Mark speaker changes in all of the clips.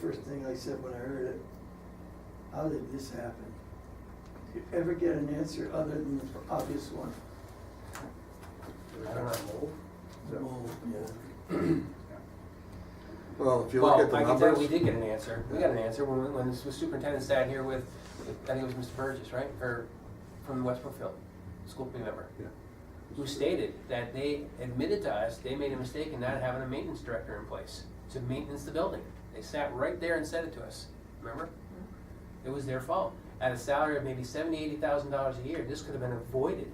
Speaker 1: first thing I said when I heard it, how did this happen? Do you ever get an answer other than the obvious one?
Speaker 2: I don't know.
Speaker 1: No, Oh, yeah.
Speaker 3: Well, if you look
Speaker 4: Well,
Speaker 3: at the
Speaker 4: I can
Speaker 3: numbers.
Speaker 4: tell you we did get an answer. We got an answer when, when the superintendent sat here with, I think it was Mr. Burgess, right? Or from West Brookfield, school committee member,
Speaker 3: Yeah.
Speaker 4: who stated that they admitted to us they made a mistake in not having a maintenance director in place to maintenance the building. They sat right there and said it to us, remember? It was their fault. At a salary of maybe seventy, eighty thousand dollars a year, this could have been avoided.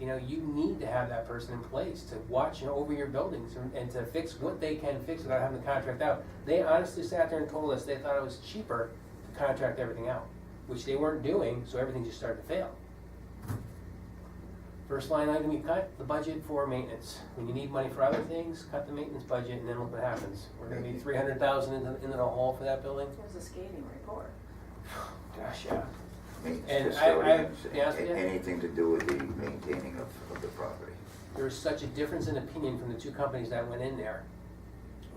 Speaker 4: You know, you need to have that person in place to watch over your buildings and- and to fix what they can fix without having the contract out. They honestly sat there and told us they thought it was cheaper to contract everything out, which they weren't doing, so everything just started to fail. First line item, you cut the budget for maintenance. When you need money for other things, cut the maintenance budget and then look what happens. We're gonna be three hundred thousand in the, in the hole for that building.
Speaker 5: It was a scathing report.
Speaker 4: Gosh, yeah.
Speaker 6: Maintenance
Speaker 4: And I-
Speaker 6: custodians,
Speaker 4: I- yes,
Speaker 6: a-
Speaker 4: yeah.
Speaker 6: Anything to do with the maintaining of, of the property.
Speaker 4: There was such a difference in opinion from the two companies that went in there.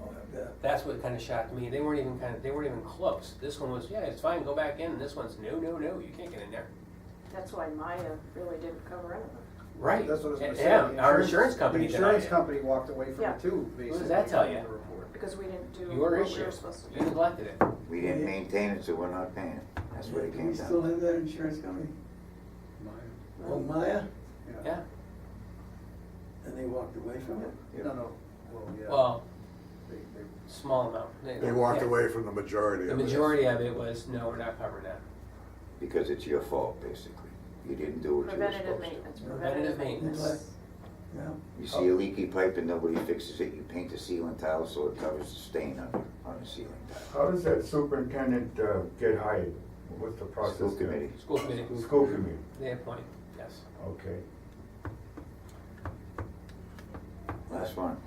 Speaker 1: Oh, I bet.
Speaker 4: That's what kind of shocked me. They weren't even kind of, they weren't even close. This one was, yeah, it's fine, go back in. This one's, no, no, no, you can't get in there.
Speaker 5: That's why Maya really didn't cover anything.
Speaker 4: Right.
Speaker 2: That's what I was gonna say.
Speaker 4: Yeah,
Speaker 2: The
Speaker 4: our insurance company
Speaker 2: The
Speaker 4: denied
Speaker 2: insurance
Speaker 4: it.
Speaker 2: company walked away from
Speaker 5: Yeah.
Speaker 2: it too, basically.
Speaker 4: does that tell you?
Speaker 2: in the report.
Speaker 5: because we didn't do what
Speaker 4: Your
Speaker 5: we
Speaker 4: issue.
Speaker 5: were supposed to
Speaker 4: You
Speaker 5: do.
Speaker 4: neglected it.
Speaker 6: We didn't maintain it, so we're not paying it. That's what it
Speaker 1: Do we
Speaker 6: came
Speaker 1: still
Speaker 6: down to.
Speaker 1: have that insurance company? Oh, Maya?
Speaker 4: Yeah.
Speaker 1: And they walked away from it?
Speaker 6: Yeah.
Speaker 2: No, no, well, yeah.
Speaker 4: Well,
Speaker 2: They- they-
Speaker 4: small amount.
Speaker 3: They walked
Speaker 4: yeah.
Speaker 3: away from the majority
Speaker 4: The
Speaker 3: of it.
Speaker 4: majority of it was, no, we're not covering that.
Speaker 6: Because it's your fault, basically. You didn't do what you were
Speaker 5: Preventative
Speaker 6: supposed to.
Speaker 5: maintenance,
Speaker 4: Preventative
Speaker 5: preventative maintenance.
Speaker 1: maintenance. Yeah.
Speaker 6: You see a leaky pipe and nobody fixes it, you paint the ceiling tile so it covers the stain on, the- on the ceiling tile.
Speaker 7: How does that superintendent uh, get hired? What's the process?
Speaker 6: School
Speaker 7: there?
Speaker 6: committee.
Speaker 4: School committee,
Speaker 7: School committee,
Speaker 4: they appoint, yes.
Speaker 7: okay.
Speaker 6: Last one.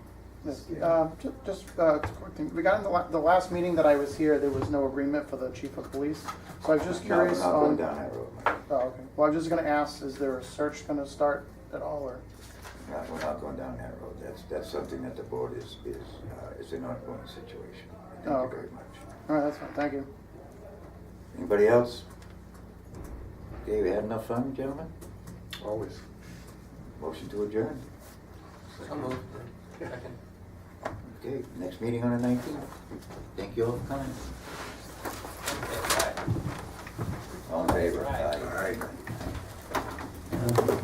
Speaker 8: Yes, uh, ju- Just, uh, it's a quick thing. Regarding the la- the last meeting that I was here, there was no agreement for the chief of police. So I was just
Speaker 6: Now,
Speaker 8: curious
Speaker 6: we're not going
Speaker 8: on,
Speaker 6: down that road, Mike.
Speaker 8: oh, okay. Well, I was just gonna ask, is there a search gonna start at all, or?
Speaker 6: No, we're not going down that road. That's, that's something that the board is, is, uh, is an ongoing situation.
Speaker 8: Oh,
Speaker 6: Thank you
Speaker 8: okay.
Speaker 6: very much.
Speaker 8: All right, that's fine, thank you.
Speaker 6: Anybody else? Okay, we had enough fun, gentlemen?
Speaker 3: Always.
Speaker 6: Motion to adjourn.
Speaker 4: So moved. Second.
Speaker 6: Okay, next meeting on the nineteenth. Thank you all for coming.
Speaker 4: Okay, bye.
Speaker 6: All in favor?
Speaker 4: Aye.
Speaker 6: Aye.